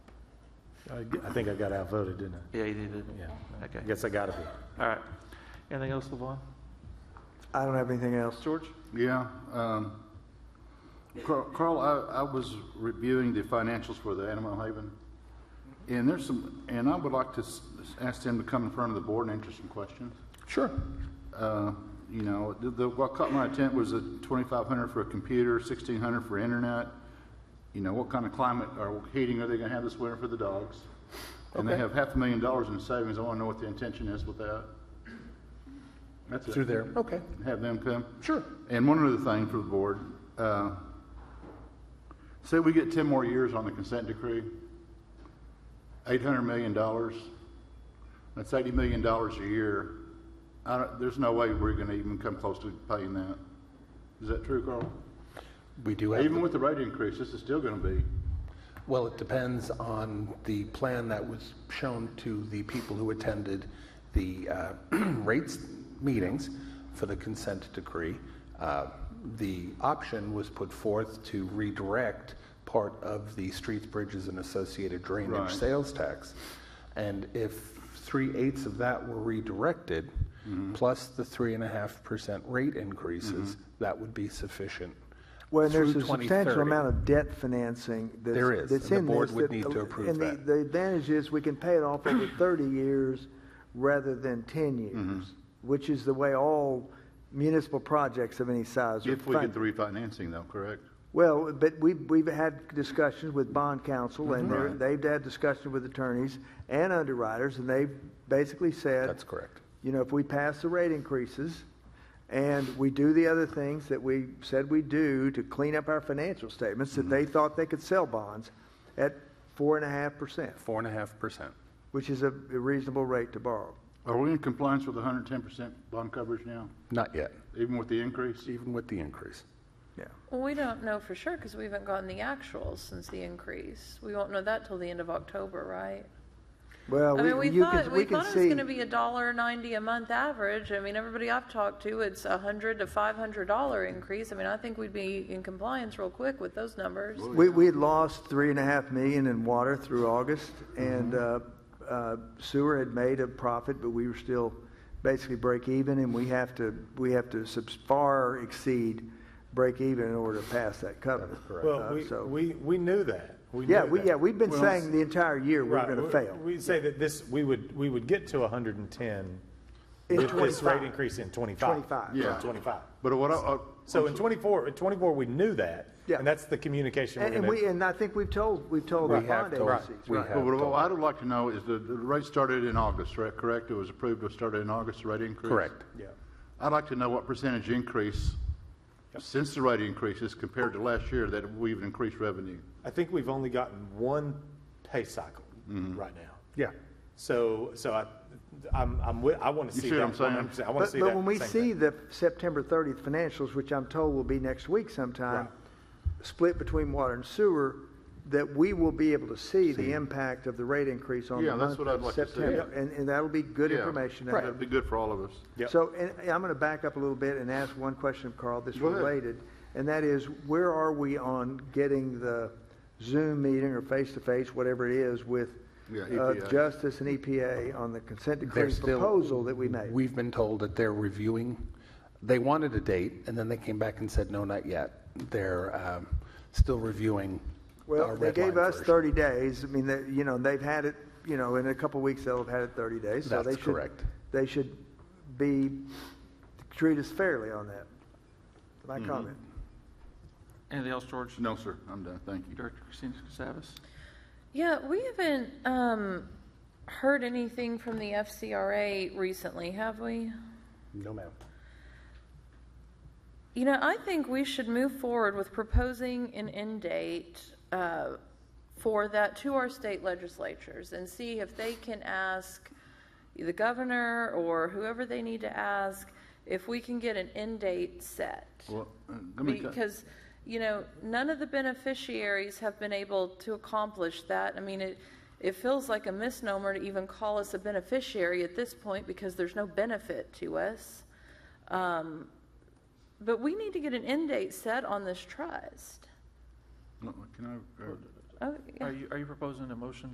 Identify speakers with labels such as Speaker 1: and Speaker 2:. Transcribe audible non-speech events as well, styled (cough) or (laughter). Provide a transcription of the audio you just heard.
Speaker 1: I g- I think I got outvoted, didn't I?
Speaker 2: Yeah, you did, didn't you?
Speaker 1: Yeah. I
Speaker 2: Okay.
Speaker 1: guess I got it. here.
Speaker 2: All right. Anything else, LeVon?
Speaker 3: I don't have anything else.
Speaker 2: George?
Speaker 4: Yeah. um, Carl, Carl, I, I was reviewing the financials for the Animal Haven, and there's some, and I would like to s- ask them to come in front of the board and answer some questions.
Speaker 1: Sure.
Speaker 4: Uh, You know, the, the- what caught my attention was the 2,500 for a computer, 1,600 for internet. You know, what kind of climate or heating are they gonna have this winter for the dogs? And they
Speaker 1: Okay.
Speaker 4: have half a million dollars in savings. I wanna know what the intention is with that. That's it.
Speaker 1: Through there. Okay.
Speaker 4: Have them come.
Speaker 1: Sure.
Speaker 4: And one other thing for the board, uh, say we get ten more years on the consent decree, eight hundred million dollars, that's eighty million dollars a year. I don't, there's no way we're gonna even come close to paying that. Is that true, Carl?
Speaker 5: We do have,
Speaker 4: Even with the rate increase, this is still gonna be,
Speaker 5: well, it depends on the plan that was shown to the people who attended the uh, (clears throat) rates meetings for the consent decree. Uh, The option was put forth to redirect part of the streets, bridges, and associated
Speaker 4: Right.
Speaker 5: drainage sales tax. And if three-eighths of that were redirected, plus the three and a half percent rate increases, that would be sufficient.
Speaker 3: Well, and there's
Speaker 5: through
Speaker 3: a substantial
Speaker 5: 2030.
Speaker 3: amount of debt financing that's.
Speaker 5: There is,
Speaker 3: that's
Speaker 5: and the
Speaker 3: in this
Speaker 5: board would
Speaker 3: that-
Speaker 5: need to approve
Speaker 3: and the-
Speaker 5: that.
Speaker 3: The advantage is we can pay it
Speaker 5: (clears throat)
Speaker 3: off over thirty years rather than ten
Speaker 5: Mm-hmm.
Speaker 3: years, which is the way all municipal projects of any size are
Speaker 4: if we get
Speaker 3: funded.
Speaker 4: the refinancing though, correct?
Speaker 3: Well, but we, we've had discussions with bond
Speaker 5: Mm-hmm.
Speaker 3: counsel and they're-
Speaker 4: Right.
Speaker 3: they've had discussions with attorneys and underwriters and they've basically said.
Speaker 5: That's correct.
Speaker 3: you know, if we pass the rate increases and we do the other things that we said we do to clean up our financial statements, that they thought they could sell bonds at four and a half percent,
Speaker 5: Four and a half percent.
Speaker 3: which is a a reasonable rate to borrow.
Speaker 4: Are we in compliance with hundred and ten percent bond coverage now,
Speaker 5: Not yet,
Speaker 4: even with the increase?
Speaker 5: even with the increase.
Speaker 3: Yeah.
Speaker 6: Well, we don't know for sure because we haven't gotten the actuals since the increase. We won't know that till the end of October, right?
Speaker 3: Well,
Speaker 6: I mean,
Speaker 3: Uh, we,
Speaker 6: we
Speaker 3: you can,
Speaker 6: thought,
Speaker 3: we
Speaker 6: we
Speaker 3: can
Speaker 6: thought it was
Speaker 3: see.
Speaker 6: going to be a dollar ninety a month average. I mean, everybody I've talked to, it's a hundred to five hundred dollar increase. I mean, I think we'd be in compliance real quick with those numbers.
Speaker 3: We, we had lost three and a half million in water through August and, uh,
Speaker 5: Mm-hmm.
Speaker 3: uh, sewer had made a profit, but we were still basically break even and we have to, we have to subs, far exceed break even in order to pass that covenant.
Speaker 1: Well,
Speaker 3: Uh,
Speaker 1: we,
Speaker 3: so-
Speaker 1: we, we knew that. We
Speaker 3: Yeah,
Speaker 1: knew
Speaker 3: we,
Speaker 1: that.
Speaker 3: yeah, we've been
Speaker 1: Well,
Speaker 3: saying the entire year we're
Speaker 1: right,
Speaker 3: going to
Speaker 1: we-
Speaker 3: fail.
Speaker 1: We say that this, we would, we would get to hundred and ten
Speaker 3: In
Speaker 1: with this rate
Speaker 3: 25.
Speaker 1: increase in twenty-five.
Speaker 3: 25.
Speaker 4: Yeah.
Speaker 1: From Twenty-five.
Speaker 4: But what I, uh, I-
Speaker 1: So in twenty-four, in twenty-four, we knew that.
Speaker 3: Yeah.
Speaker 1: And that's the communication
Speaker 3: And,
Speaker 1: we're
Speaker 3: and we,
Speaker 1: gonna.
Speaker 3: and I think we've told, we've told the
Speaker 5: We have
Speaker 3: bond
Speaker 5: told-
Speaker 3: agencies,
Speaker 5: we
Speaker 3: right?
Speaker 5: have.
Speaker 4: Well, what what I would like to know is the, the rate started in August, right, correct? It was approved, it started in August, the rate increase?
Speaker 5: Correct.
Speaker 1: Yeah.
Speaker 4: I'd like to know what percentage increase since the rate increases compared to last year that we've increased revenue.
Speaker 1: I think we've only gotten one pay cycle right now.
Speaker 5: Yeah.
Speaker 1: So, so I, I'm, I'm, wi- I want to
Speaker 4: You
Speaker 1: see
Speaker 4: see what
Speaker 1: that
Speaker 4: I'm saying?
Speaker 1: 100%. I want to
Speaker 3: But,
Speaker 1: see that.
Speaker 3: but when we
Speaker 1: same
Speaker 3: see
Speaker 1: thing.
Speaker 3: the September 30th financials, which I'm told will be next week sometime, split between water and sewer, that we will be able to see the impact of the rate increase on the
Speaker 4: Yeah, that's
Speaker 3: month
Speaker 4: what I'd
Speaker 3: of
Speaker 4: like to see.
Speaker 3: September.
Speaker 1: Yep.
Speaker 3: And, and that'll be good
Speaker 4: Yeah.
Speaker 3: information. to have.
Speaker 4: That'd be good for all of us.
Speaker 1: Yep.
Speaker 3: So, and and I'm going to back up a little bit and ask one question of Carl that's
Speaker 4: Go ahead.
Speaker 3: related, and that is, where are we on getting the Zoom meeting or face-to-face, whatever it is, with
Speaker 4: Yeah, E
Speaker 3: uh,
Speaker 4: EPA.
Speaker 3: Justice and EPA on the consent
Speaker 5: They're
Speaker 3: decree
Speaker 5: still-
Speaker 3: proposal that we made?
Speaker 5: We've been told that they're reviewing, they wanted a date, and then they came back and said, no, not yet. They're um, still reviewing
Speaker 3: Well,
Speaker 5: our
Speaker 3: they
Speaker 5: red
Speaker 3: gave
Speaker 5: line
Speaker 3: us
Speaker 5: version.
Speaker 3: 30 days, I mean, they- you know, they've had it, you know, in a couple of weeks, they'll have had it 30 days. so
Speaker 5: That's
Speaker 3: they should-
Speaker 5: correct.
Speaker 3: They should be, treat us fairly on that. My
Speaker 5: Mm-hmm.
Speaker 3: comment.
Speaker 2: Anything else, George?
Speaker 4: No, sir, I'm done, thank you.
Speaker 2: Director Christina Casavas?
Speaker 6: Yeah, we haven't um, heard anything from the FCRA recently, have we?
Speaker 5: No, ma'am.
Speaker 6: You know, I think we should move forward with proposing an end date uh, for that to our state legislatures and see if they can ask the governor or whoever they need to ask if we can get an end date set.
Speaker 4: Well, uh, let me cut-
Speaker 6: Because, you know, none of the beneficiaries have been able to accomplish that. I mean, it, it feels like a misnomer to even call us a beneficiary at this point because there's no benefit to us. Um, But we need to get an end date set on this trust.
Speaker 4: no, Can I? uh,
Speaker 6: Oh, yeah.
Speaker 2: Are you, are you proposing a motion